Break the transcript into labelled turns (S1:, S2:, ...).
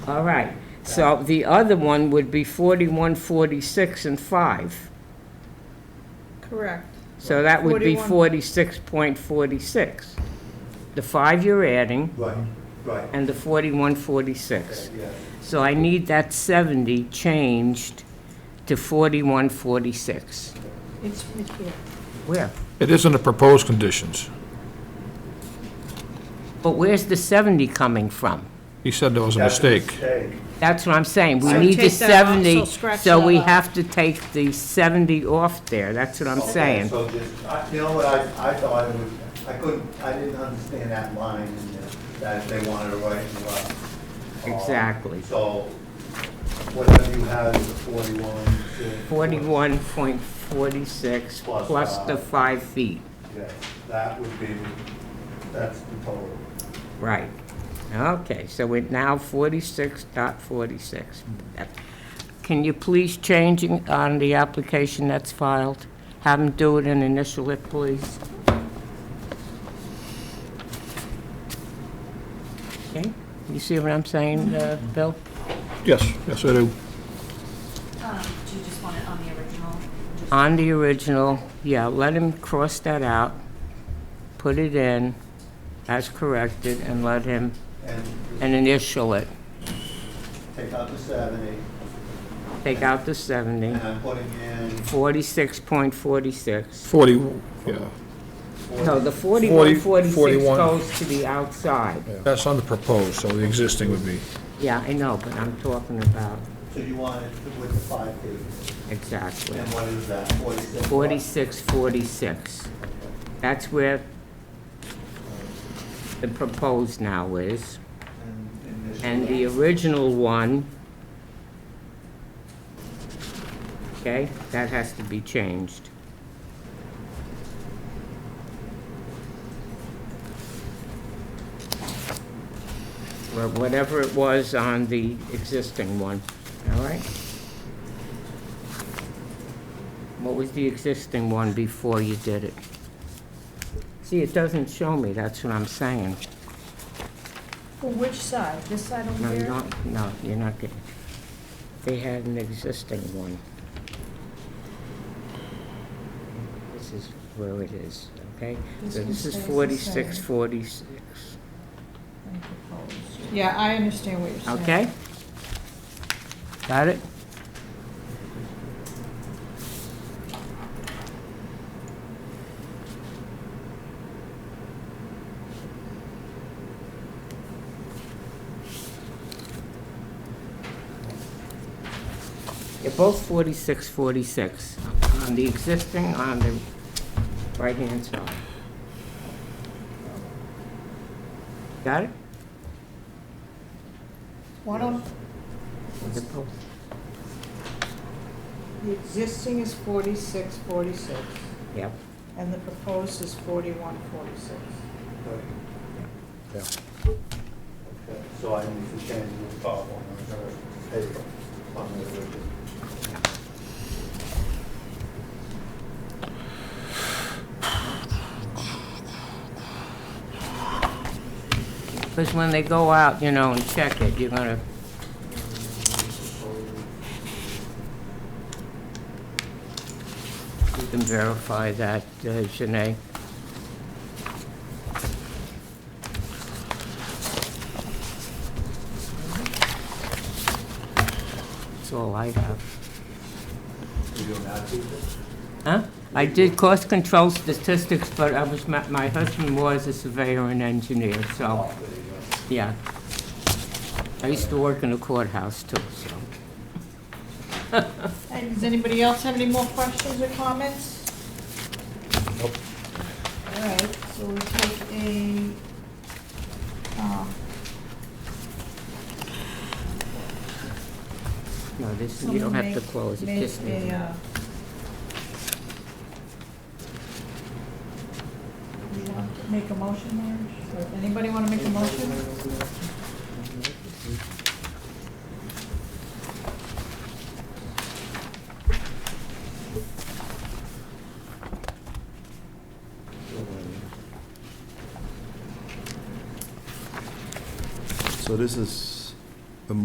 S1: All right, so the other one would be 41, 46, and 5.
S2: Correct.
S1: So that would be
S2: 41.
S1: 46.46. The 5 you're adding,
S3: Right, right.
S1: and the 41, 46.
S3: Yeah,
S1: So I need that 70 changed to 41, 46.
S2: It's right here.
S1: Where?
S4: It is in the proposed conditions.
S1: But where's the 70 coming from?
S4: He said there was a
S3: That's
S4: mistake.
S1: That's what I'm saying, we
S2: So
S1: need the
S2: take that off, so
S1: 70,
S2: scratch
S1: so
S2: that
S1: we
S2: off.
S1: have to take the 70 off there, that's what I'm
S3: Okay,
S1: saying.
S3: So just, I- you know what, I, I thought it was, I couldn't, I didn't understand that line in there, that they wanted to write in left. Um,
S1: Exactly.
S3: So whatever you have is a forty-one. to-
S1: 41.46
S3: Plus
S1: plus the
S3: five.
S1: 5 feet,
S3: Yes, that would be, that's the total.
S1: right. Okay, so we're now 46.46. That- Can you please change it on the application that's filed? Have them do it and initial it, please. Okay, you see what I'm saying, uh, Bill?
S4: Yes, yes, I do.
S5: Um, Do you just want it on the original? Just-
S1: On the original, yeah, let him cross that out, put it in as corrected, and let him,
S3: And just
S1: and initial it.
S3: take out the seventy,
S1: Take out the 70,
S3: and I'm putting in
S1: 46.46.
S4: 40, yeah,
S1: No, the
S3: forty.
S1: 41, 46
S4: 41.
S1: goes to the outside.
S4: that's on the proposed, so the existing would be.
S1: Yeah, I know, but I'm talking about,
S3: So you want it to- with the five feet,
S1: exactly,
S3: and what is that, forty-six?
S1: 46, 46. That's where the proposed now is.
S3: And initial.
S1: And the original one, okay, that has to be changed. Wha- Whatever it was on the existing one, all right? What was the existing one before you did it? See, it doesn't show me, that's what I'm saying.
S2: For which side? This side over
S1: No, you
S2: here?
S1: don't, no, you're not getting, they had an existing one. This is where it is, okay?
S2: This
S1: So
S2: one
S1: this
S2: stays
S1: is
S2: the
S1: forty-six,
S2: same.
S1: forty-six,
S2: Yeah, I understand what you're saying.
S1: okay? Got it? They're both forty-six, forty-six, on the existing, on the right-hand side. Got it?
S2: Why don't,
S1: They're both-
S2: the existing is forty-six, forty-six,
S1: Yep.
S2: and the proposed is forty-one, forty-six.
S3: Okay. Okay, So I need to change the top one on the paper, on the original.
S1: Because when they go out, you know, and check it, you're gonna, you can verify that, uh, Janae. That's all I have.
S3: You don't have to.
S1: Huh? I did cost control statistics, but I was, ma- my husband was a surveyor and engineer, so,
S3: Oh, there you go.
S1: yeah. I used to work in the courthouse too, so.
S2: And does anybody else have any more questions or comments? All right, so we take a, um,
S1: No, this, you don't have to
S2: Someone make-
S1: close, it
S2: make
S1: just needs.
S2: a, uh, you want to Make a motion, Marge? Or Anybody want to make a motion?
S6: So this is